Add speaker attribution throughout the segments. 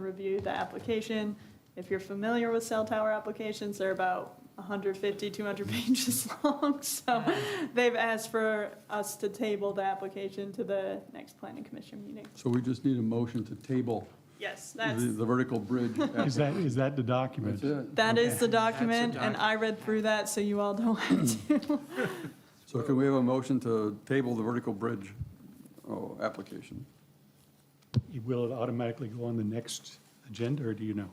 Speaker 1: review the application. If you're familiar with cell tower applications, they're about 150, 200 pages long, so they've asked for us to table the application to the next planning commission meeting.
Speaker 2: So we just need a motion to table
Speaker 1: Yes,
Speaker 2: the
Speaker 1: that's,
Speaker 2: the vertical bridge.
Speaker 3: Is that, is that the document?
Speaker 2: That's it.
Speaker 1: that is the document,
Speaker 4: That's a
Speaker 1: and I read through that, so you all don't have to.
Speaker 2: So can we have a motion to table the vertical bridge oh, application?
Speaker 3: Will it automatically go on the next agenda, or do you know?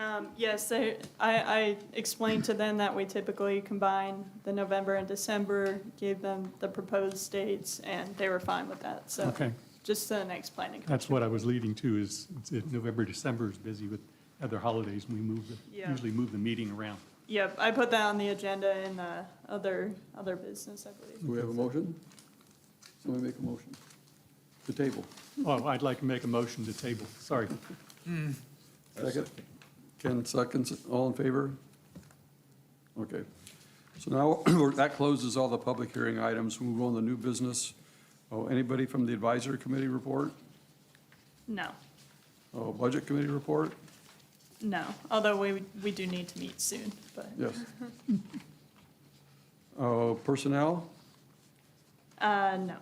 Speaker 1: Um, Yes, they- I, I explained to them that we typically combine the November and December, gave them the proposed dates, and they were fine with that, so.
Speaker 3: Okay,
Speaker 1: Just to the next planning.
Speaker 3: that's what I was leading to, is it's- it- November, December is busy with other holidays, and we move, the-
Speaker 1: Yeah.
Speaker 3: usually move the meeting around.
Speaker 1: Yep, I put that on the agenda in the other, other business, I believe.
Speaker 2: Do we have a motion? Somebody make a motion to table.
Speaker 3: Oh, I'd like to make a motion to table, sorry.
Speaker 2: Second? Ken seconds, all in favor? Okay. So now, we're- that closes all the public hearing items. Move on to new business. Oh, anybody from the advisory committee report?
Speaker 1: No,
Speaker 2: Oh, budget committee report?
Speaker 1: no, although we, we do need to meet soon, but.
Speaker 2: Yes. Oh, personnel?
Speaker 1: Uh, no,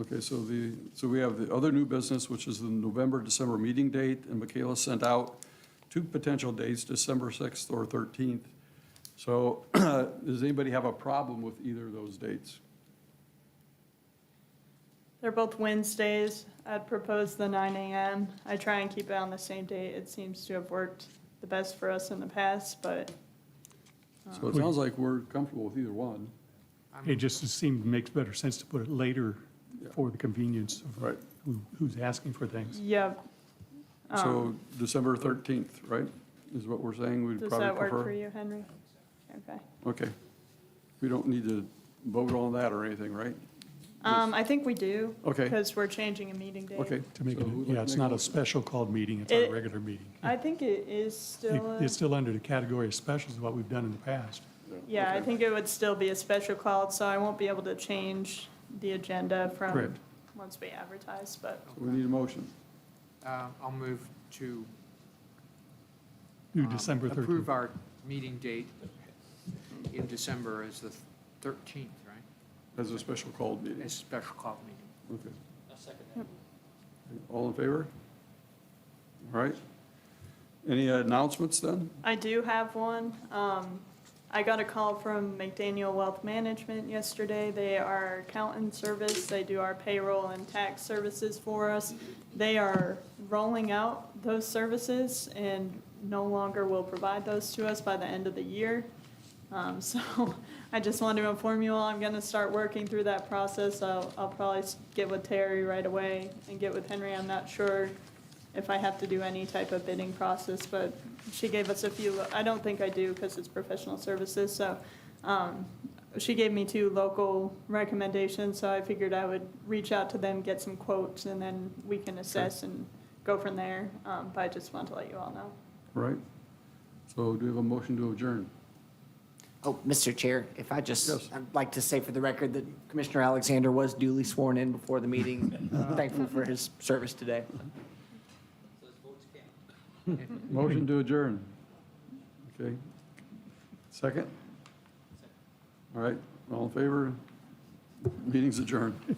Speaker 2: Okay, so the, so we have the other new business, which is the November, December meeting date, and Michaela sent out two potential dates, December 6th or 13th. So does anybody have a problem with either of those dates?
Speaker 1: they're both Wednesdays. I'd propose the nine AM. I try and keep it on the same date. It seems to have worked the best for us in the past, but
Speaker 2: So it
Speaker 3: Oh.
Speaker 2: sounds like we're comfortable with either one.
Speaker 3: It just seemed, makes better sense to put it later
Speaker 2: Yeah.
Speaker 3: for the convenience of
Speaker 2: Right.
Speaker 3: who- who's asking for things.
Speaker 1: yeah. Oh.
Speaker 2: So December 13th, right, is what we're saying we'd
Speaker 1: Does
Speaker 2: probably prefer?
Speaker 1: that work for you, Henry? Okay.
Speaker 2: Okay. We don't need to vote on that or anything, right?
Speaker 1: Um, I think we do.
Speaker 2: Okay.
Speaker 1: Because we're changing a meeting date.
Speaker 2: Okay.
Speaker 3: To make,
Speaker 2: So
Speaker 3: it
Speaker 2: who'd like
Speaker 3: yeah,
Speaker 2: to
Speaker 3: it's
Speaker 2: make
Speaker 3: not a
Speaker 2: motion?
Speaker 3: special called meeting, it's our
Speaker 1: It-
Speaker 3: regular meeting.
Speaker 1: I think it is still, uh,
Speaker 3: It- It's
Speaker 1: a-
Speaker 3: still under the category of specials, what we've done in the past.
Speaker 1: yeah, I
Speaker 2: Okay.
Speaker 1: think it would still be a special call, so I won't be able to change the agenda from
Speaker 3: Correct.
Speaker 1: once we advertise, but
Speaker 2: So We need a motion.
Speaker 4: Uh, I'll move to.
Speaker 3: Through
Speaker 4: um,
Speaker 3: December 13th.
Speaker 4: Approve our meeting date in December as the 13th, right?
Speaker 2: As a special called meeting.
Speaker 4: As special call meeting.
Speaker 2: Okay. All in favor? All right. Any announcements then?
Speaker 1: I do have one. Um, I got a call from McDaniel Wealth Management yesterday. They are our accountant service. They do our payroll and tax services for us. They are rolling out those services and no longer will provide those to us by the end of the year. Um, so I just wanted to inform you all, I'm gonna start working through that process. I'll, I'll probably s- get with Terry right away and get with Henry. I'm not sure if I have to do any type of bidding process, but she gave us a few, I don't think I do because it's professional services, so, um, she gave me two local recommendations, so I figured I would reach out to them, get some quotes, and then we can assess and go from there. Um, but I just want to let you all know.
Speaker 2: All Right? So do we have a motion to adjourn?
Speaker 5: Oh, Mr. Chair, if I
Speaker 2: Yes.
Speaker 5: just, I'd like to say for the record that Commissioner Alexander was duly sworn in before the meeting. Thankful for his service today.
Speaker 2: Motion to adjourn. Okay. Second? All right, all in favor? Meeting's adjourned.